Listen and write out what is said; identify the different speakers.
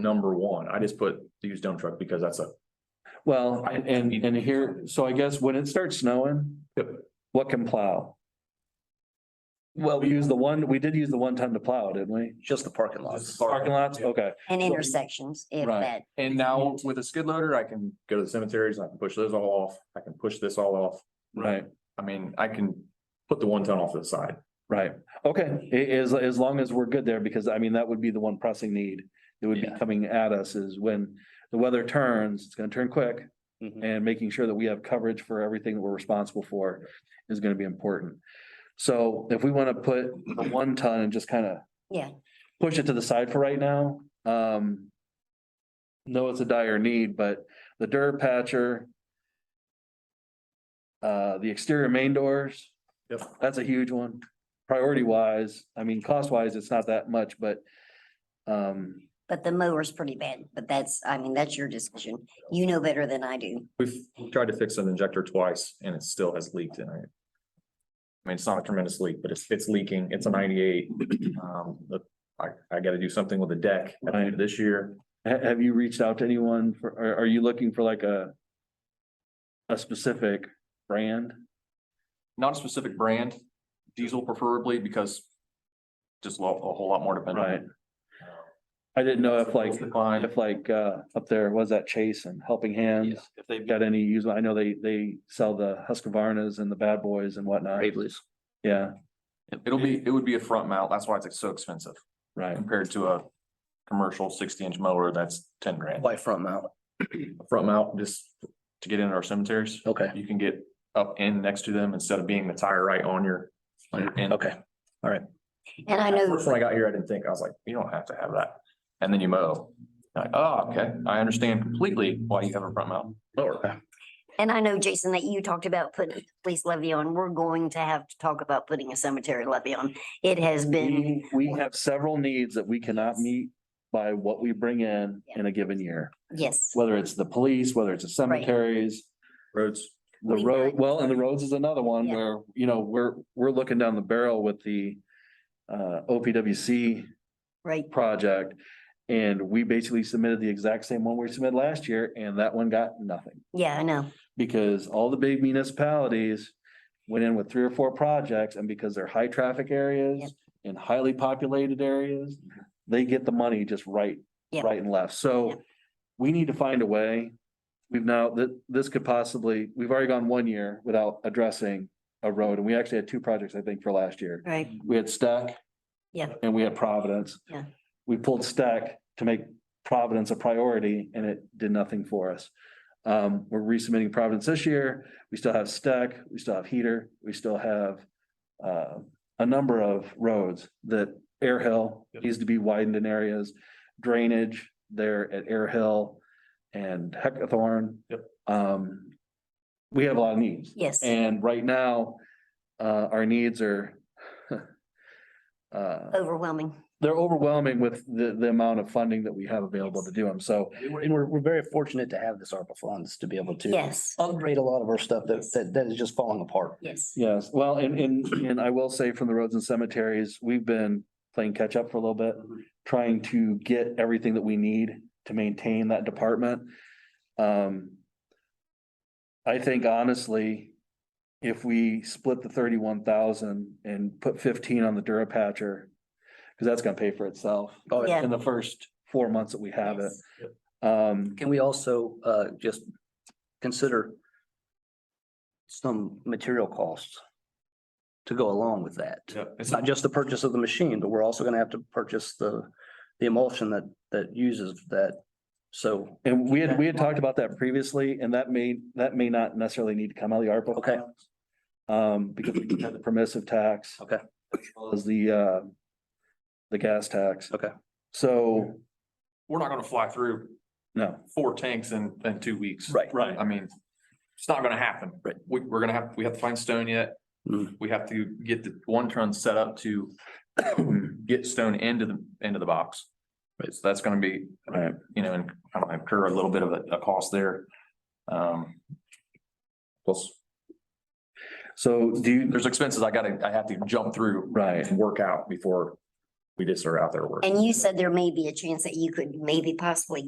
Speaker 1: number one. I just put used dump truck because that's a,
Speaker 2: Well, and, and, and here, so I guess when it starts snowing.
Speaker 1: Yep.
Speaker 2: What can plow? Well, we use the one, we did use the one ton to plow, didn't we?
Speaker 3: Just the parking lots.
Speaker 1: Just the
Speaker 2: Parking lots, okay.
Speaker 4: And
Speaker 2: So-
Speaker 4: intersections, if
Speaker 2: Right.
Speaker 4: that,
Speaker 1: and now with a skid loader, I can go to the cemeteries and I can push those all off. I can push this all off.
Speaker 2: Right,
Speaker 1: I mean, I can put the one ton off to the side.
Speaker 2: right. Okay, A- as, as long as we're good there, because I mean, that would be the one pressing need. That would be
Speaker 3: Yeah.
Speaker 2: coming at us is when the weather turns, it's gonna turn quick.
Speaker 3: Mhm.
Speaker 2: And making sure that we have coverage for everything that we're responsible for is gonna be important. So if we wanna put the one ton and just kinda.
Speaker 4: Yeah.
Speaker 2: Push it to the side for right now, um. No, it's a dire need, but the dirt patcher. Uh, the exterior main doors.
Speaker 1: Yep.
Speaker 2: That's a huge one, priority wise, I mean, cost wise, it's not that much, but. Um,
Speaker 4: but the mower's pretty bad, but that's, I mean, that's your decision. You know better than I do.
Speaker 1: We've tried to fix an injector twice and it still has leaked in it. I mean, it's not a tremendous leak, but it's, it's leaking. It's a ninety-eight. Um, the- I, I gotta do something with the deck at the end of this year.
Speaker 2: ha- have you reached out to anyone for, are, are you looking for like a? A specific brand?
Speaker 1: Not a specific brand, diesel preferably because just a lot- a whole lot more dependent.
Speaker 2: Right. I didn't
Speaker 1: Uh,
Speaker 2: know if like,
Speaker 1: Decline.
Speaker 2: if like, uh, up there, was that Chase and Helping Hands?
Speaker 3: Yeah, If they've got
Speaker 2: Got any use, I know they, they sell the Husqvarna's and the Bad Boys and whatnot.
Speaker 3: Bravely's.
Speaker 2: Yeah,
Speaker 1: It'll be, it would be a front mount. That's why it's so expensive
Speaker 2: right.
Speaker 1: compared to a commercial sixty inch mower that's ten grand.
Speaker 3: Why front mount?
Speaker 1: A Front mount just to get into our cemeteries.
Speaker 3: Okay,
Speaker 1: You can get up in next to them instead of being the tire right on your. on your end.
Speaker 3: okay.
Speaker 4: And I
Speaker 1: At
Speaker 4: know,
Speaker 1: First, when I got here, I didn't think, I was like, you don't have to have that. And then you mow. Like, oh, okay, I understand completely why you have a front mount mower.
Speaker 4: and I know, Jason, that you talked about putting a police levy on. We're going to have to talk about putting a cemetery levy on. It has
Speaker 2: Mm-hmm.
Speaker 4: been,
Speaker 2: We, we have several needs that we cannot meet by what we bring in in a given year.
Speaker 4: yes,
Speaker 2: Whether it's the police, whether it's the cemeteries,
Speaker 1: Roads.
Speaker 2: the
Speaker 4: We
Speaker 2: road,
Speaker 4: might-
Speaker 2: well, and the roads is another one
Speaker 4: Yeah.
Speaker 2: where, you know, we're, we're looking down the barrel with the. Uh, OPWC
Speaker 4: right?
Speaker 2: project. And we basically submitted the exact same one we submitted last year and that one got nothing.
Speaker 4: Yeah, I know.
Speaker 2: because all the big municipalities went in with three or four projects and because they're high traffic
Speaker 4: Yep.
Speaker 2: areas and highly populated areas, they get the money just right,
Speaker 4: Yep.
Speaker 2: right and left.
Speaker 4: Yep.
Speaker 2: So we need to find a way. We've now, that, this could possibly, we've already gone one year without addressing a road and we actually had two projects, I think, for last year.
Speaker 4: Right.
Speaker 2: We had Stack.
Speaker 4: Yeah.
Speaker 2: And we had Providence.
Speaker 4: Yeah.
Speaker 2: We pulled Stack to make Providence a priority and it did nothing for us. Um, we're resubmitting Providence this year. We still have Stack, we still have Heater, we still have uh, a number of roads that Air Hill needs to be widened in areas, drainage there at Air Hill and Heckathorn.
Speaker 1: Yep.
Speaker 2: Um, we have a lot of needs.
Speaker 4: Yes,
Speaker 2: And right now, uh, our needs are uh,
Speaker 4: overwhelming.
Speaker 2: they're overwhelming with the, the amount of funding that we have available to do them. So,
Speaker 3: And we're- and we're, we're very fortunate to have this ARPA funds to be able to
Speaker 4: Yes,
Speaker 3: upgrade a lot of our stuff that, that, that is just falling apart.
Speaker 4: yes.
Speaker 2: yes, well, and, and, and I will say from the roads and cemeteries, we've been playing catch up for a little bit, trying to get everything that we need to maintain that department. Um, I think honestly, if we split the thirty-one thousand and put fifteen on the Durapatcher, because that's gonna pay for itself.
Speaker 3: Oh,
Speaker 4: yeah.
Speaker 2: In the first four months that we have it.
Speaker 4: yes.
Speaker 2: Um,
Speaker 3: Can we also, uh, just consider some material costs to go along with that? It's not just the purchase of the machine, but we're also gonna have to purchase the, the emulsion that, that uses that. So,
Speaker 2: and we had, we had talked about that previously, and that may, that may not necessarily need to come out of the ARPA.
Speaker 3: Okay.
Speaker 2: funds, Um, because we have the permissive tax.
Speaker 3: Okay.
Speaker 2: As well as the, uh, the gas tax.
Speaker 3: Okay.
Speaker 2: So,
Speaker 1: We're not gonna fly through
Speaker 2: no,
Speaker 1: four tanks in, in two weeks.
Speaker 3: Right.
Speaker 2: Right.
Speaker 1: I mean, it's not gonna happen.
Speaker 3: Right.
Speaker 1: We, we're gonna have, we have to find stone yet.
Speaker 3: Mm.
Speaker 1: We have to get the one ton set up to get stone into the, into the box. Right, so that's gonna be,
Speaker 2: Right.
Speaker 1: you know, and I don't know, incur a little bit of a, a cost there. Um. Plus,
Speaker 2: so do you,
Speaker 1: there's expenses I gotta, I have to jump through
Speaker 2: right,
Speaker 1: and work out before we just are out there working.
Speaker 4: And you said there may be a chance that you could maybe possibly